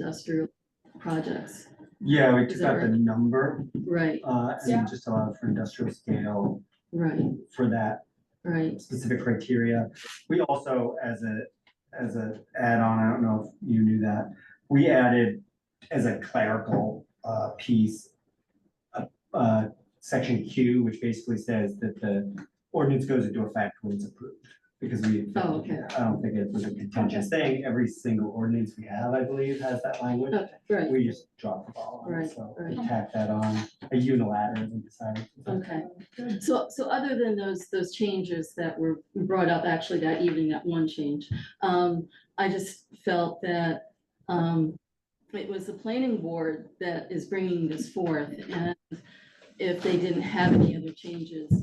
industrial projects, Yeah, we Is took that out the right? number, right, uh, Yeah. and just allowed for industrial scale right, for that right, specific criteria. We also, as a, as a add-on, I don't know if you knew that, we added as a clerical, uh, piece, a- uh, section Q, which basically says that the ordinance goes into effect when it's approved. Because we, I Oh, okay. don't think it was a contentious thing, every single ordinance we have, I believe, has that language. okay, right, We just dropped the ball on it, Right, so right. we tacked that on, a unilateral, we decided. okay. So, so other than those, those changes that were brought up actually that evening, that one change, um, I just felt that, um, it was the planning board that is bringing this forth, and if they didn't have any other changes,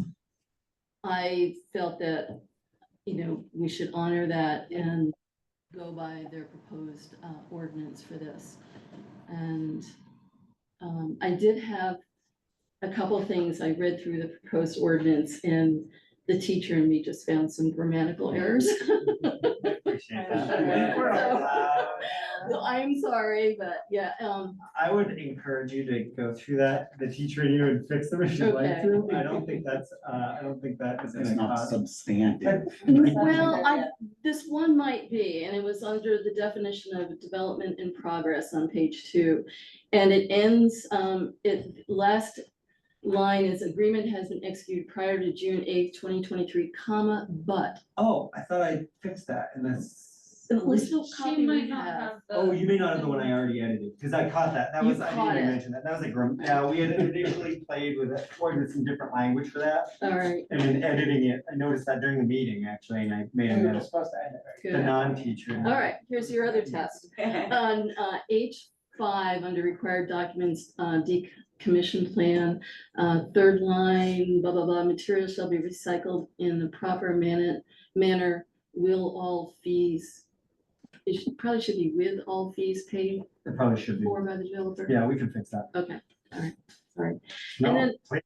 I felt that, you know, we should honor that and go by their proposed, uh, ordinance for this. And, um, I did have a couple of things, I read through the proposed ordinance and the teacher and me just found some grammatical errors. Appreciate Yeah. that. Uh, We're allowed. So I'm sorry, but yeah, um, I would encourage you to go through that, the teacher and you and fix them if you'd like Okay. to. I don't think that's, uh, I don't think that is It's gonna not cause. substantive. well, I, this one might be, and it was under the definition of development in progress on page two. And it ends, um, it, last line is agreement has been executed prior to June eighth, twenty twenty-three, comma, but. Oh, I thought I fixed that and that's. At least no copy She might we not have. have the. Oh, you may not have the one I already edited, because I caught that, that You was, I caught didn't even it. mention that, that was a grim, yeah, we had initially played with it, ordinance in different language for that. All right, And in editing it, I noticed that during the meeting, actually, and I made a Hmm. You were note, supposed to end it, the good. non-teacher. All right, here's your other test. I. On uh, H five, under required documents, uh, decommission plan, uh, third line, blah, blah, blah, materials shall be recycled in the proper manner, manner, will all fees. It should, probably should be with all fees paid It probably should be, for by the developer. yeah, we can fix that. Okay, all right, all right. And No, then- please.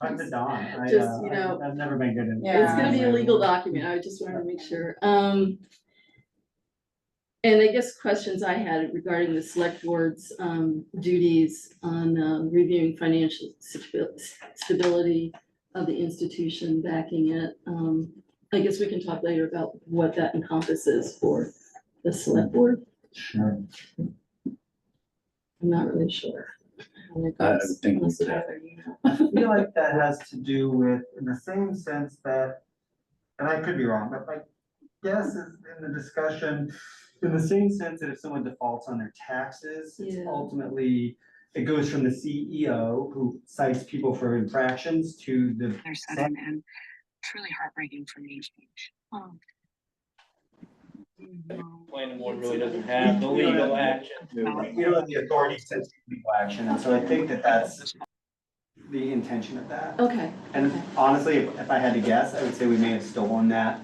I'm the Don, I, Just, uh, you know, I- I've never been good at. It's Yeah. gonna be a legal document, I just wanted to make sure, um. And I guess questions I had regarding the select board's, um, duties on, um, reviewing financial stabi- stability of the institution backing it, um, I guess we can talk later about what that encompasses for the select board, Sure. I'm not really sure. how that I goes. think we Let's could talk have, later, you know. I feel like that has to do with, in the same sense that, and I could be wrong, but like, yes, in the discussion, in the same sense that if someone defaults on their taxes, it's Yeah. ultimately, it goes from the CEO who cites people for infractions to the their sudden and truly heartbreaking for me. Oh. No. planning board really doesn't have the legal action. We don't have the authority to take legal action, and so I think that that's the intention of that. Okay, And honestly, if if I had to guess, I would say we may have stolen that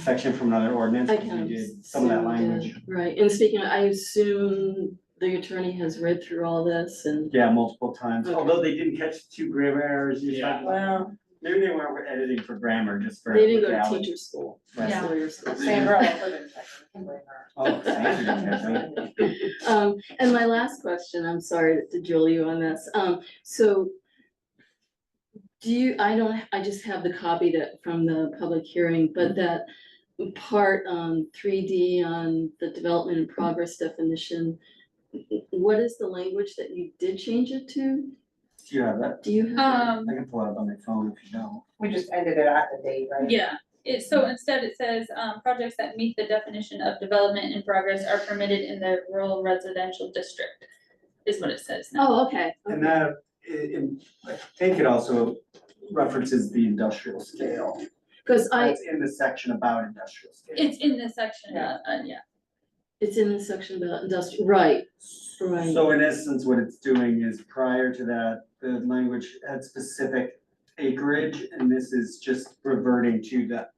section from another ordinance, I because can. we did some of that assume that- language. Right, and speaking, of, I assume the attorney has read through all this and, Yeah, multiple times, Okay. although they didn't catch two grammar errors, you Yeah. thought, Wow, maybe they weren't editing for grammar, just for. they didn't go to legality. teacher school, Right. Yeah. lawyer school. same girl. I couldn't- I couldn't blame her. Oh, thank you, Kathleen. Um, and my last question, I'm sorry to drill you on this, um, so. Do you, I don't, I just have the copy that, from the public hearing, Mm-hmm. but that part, um, three D on the development and progress definition. What is the language that you did change it to? Do you have that? Do you have? Um, I can pull it up on my phone if you don't. We just ended it at the date, right? yeah, it, so instead it says, um, projects that meet the definition of development in progress are permitted in the rural residential district. Is what it says now. Oh, okay, And okay, that, it, I think it also references the industrial scale. cause I, That's in the section about industrial scale. It's in this section, uh, uh, yeah. it's in the section about industrial, right, right. So in essence, what it's doing is prior to that, the language had specific acreage, and this is just reverting to the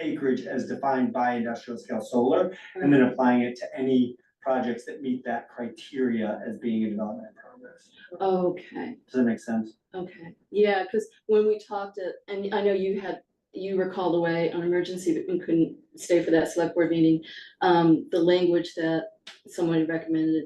acreage as defined by industrial scale solar, and then applying it to any projects that meet that criteria as being a development in progress. Okay. Does that make sense? Okay, yeah, because when we talked at, uh, and I know you had you were called away on emergency but you couldn't stay for that select board meeting, um, the language that someone recommended